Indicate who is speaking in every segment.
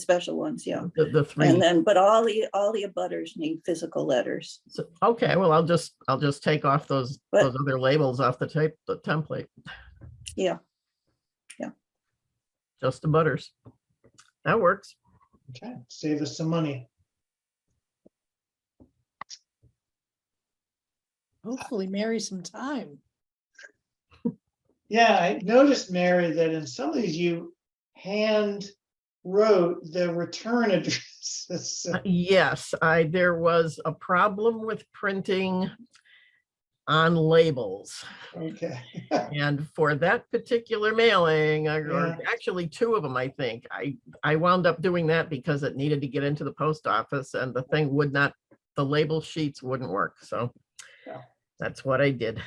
Speaker 1: special ones, yeah.
Speaker 2: The, the
Speaker 3: Mm,
Speaker 2: three,
Speaker 1: And then, but all the, all the abutters need physical letters.
Speaker 2: So- okay, well, I'll just, I'll just take off those,
Speaker 1: But-
Speaker 2: those other labels off the tape, the template.
Speaker 1: Yeah. Yeah.
Speaker 2: Just the butters. That works.
Speaker 3: Okay, save us some money.
Speaker 4: Hopefully marry some time.
Speaker 3: Yeah, I noticed, Mary, that in some of these you hand wrote the return addresses. So-
Speaker 2: Uh, Yes, I, there was a problem with printing on labels.
Speaker 3: Okay,
Speaker 2: And for that particular mailing, I-
Speaker 3: Yeah.
Speaker 2: or actually two of them, I think, I, I wound up doing that because it needed to get into the post office and the thing would not, the label sheets wouldn't work, so.
Speaker 3: Yeah.
Speaker 2: That's what I did.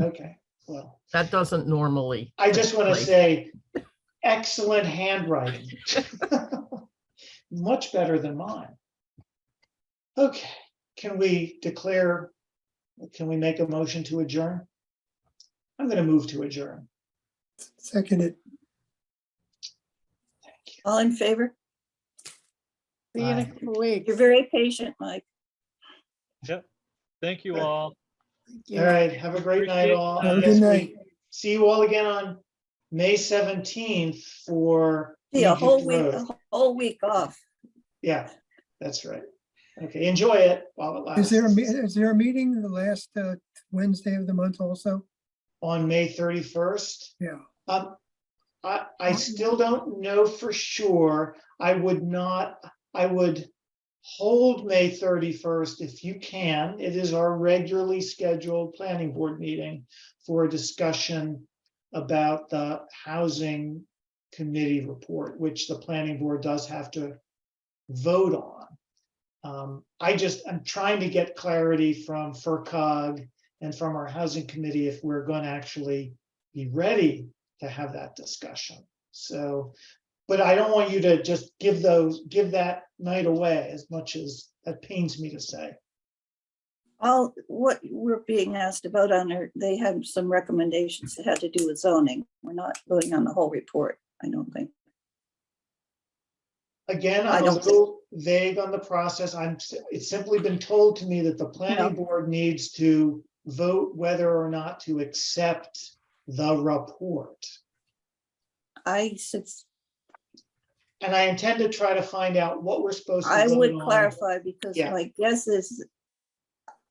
Speaker 3: okay, well,
Speaker 2: That doesn't normally.
Speaker 3: I just want to
Speaker 2: take place.
Speaker 3: say excellent handwriting. Much better than mine. Okay, can we declare, can we make a motion to adjourn? I'm going to move to adjourn.
Speaker 5: Second it.
Speaker 1: All in favor?
Speaker 4: See you in a
Speaker 3: Bye.
Speaker 4: couple weeks.
Speaker 1: You're very patient, Mike.
Speaker 6: Thank you
Speaker 3: Right.
Speaker 6: all.
Speaker 4: Thank you.
Speaker 3: All right, have a great night
Speaker 6: Appreciate
Speaker 3: all.
Speaker 5: it. Have a
Speaker 3: and
Speaker 5: good
Speaker 3: yes, we
Speaker 5: night.
Speaker 3: See you all again on May seventeenth for.
Speaker 1: Yeah, a
Speaker 3: Egypt
Speaker 1: whole week,
Speaker 3: Road.
Speaker 1: a whole week off.
Speaker 3: Yeah, that's right. Okay, enjoy it while it
Speaker 5: Is
Speaker 3: lasts.
Speaker 5: there, a me- is there a meeting the last uh, Wednesday of the month also?
Speaker 3: On May thirty-first.
Speaker 5: Yeah.
Speaker 3: Um, I, I still don't know for sure. I would not, I would hold May thirty-first if you can. It is our regularly scheduled planning board meeting for a discussion about the housing committee report, which the planning board does have to vote on. Um, I just, I'm trying to get clarity from FERCog and from our housing committee if we're going to actually be ready to have that discussion. So, but I don't want you to just give those, give that night away as much as that pains me to say.
Speaker 1: All, what we're being asked to vote on, are they had some recommendations that had to do with zoning. We're not voting on the whole report, I don't think.
Speaker 3: Again,
Speaker 1: I
Speaker 3: I'm a
Speaker 1: don't think-
Speaker 3: little vague on the process. I'm, s- it's simply been told to me that the planning board needs to vote whether or not to accept the report.
Speaker 1: I since,
Speaker 3: And I intend to try to find out what we're supposed to.
Speaker 1: I
Speaker 3: vote
Speaker 1: would
Speaker 3: on.
Speaker 1: clarify because
Speaker 3: Yeah.
Speaker 1: my guess is,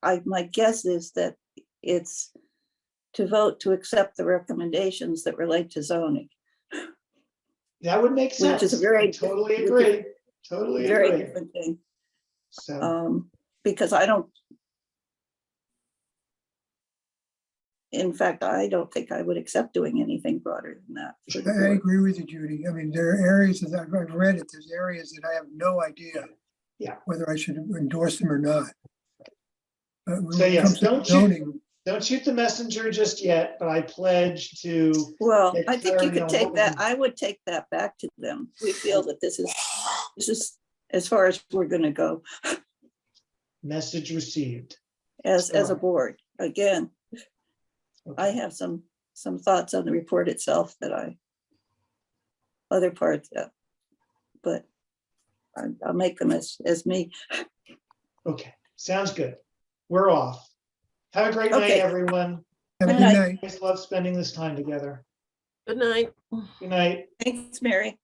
Speaker 1: I, my guess is that it's to vote to accept the recommendations that relate to zoning.
Speaker 3: That would make sense.
Speaker 1: Which is very
Speaker 3: I Totally
Speaker 1: diff-
Speaker 3: agree, totally
Speaker 1: Very
Speaker 3: agree.
Speaker 1: different thing.
Speaker 3: So,
Speaker 1: Um, because I don't. In fact, I don't think I would accept doing anything broader than that. for
Speaker 5: I
Speaker 1: the
Speaker 5: I
Speaker 1: board.
Speaker 5: agree with you, Judy. I mean, there are areas, as I've I've read it, there's areas that I have no idea.
Speaker 3: Yeah.
Speaker 5: Whether I should endorse them or not. But when
Speaker 3: So,
Speaker 5: it
Speaker 3: yes,
Speaker 5: comes to
Speaker 3: don't you-
Speaker 5: zoning,
Speaker 3: don't shoot the messenger just yet, but I pledge to,
Speaker 1: Well,
Speaker 3: Get
Speaker 1: I think you
Speaker 3: clarity on
Speaker 1: could take
Speaker 3: what
Speaker 1: that,
Speaker 3: we-
Speaker 1: I would take that back to them. We feel that this is, this is as far as we're gonna go
Speaker 3: message received.
Speaker 1: as, as a
Speaker 3: Sure.
Speaker 1: board. Again, I
Speaker 3: Okay.
Speaker 1: have some, some thoughts on the report itself that I. Other parts, uh, but I- I'll make them as, as me.
Speaker 3: Okay, sounds good. We're off. Have a great night,
Speaker 1: Okay.
Speaker 3: everyone.
Speaker 5: have
Speaker 1: Good
Speaker 5: a good
Speaker 1: night.
Speaker 5: night.
Speaker 3: I just love spending this time together.
Speaker 2: Good night.
Speaker 3: Good night.
Speaker 1: Thanks, Mary.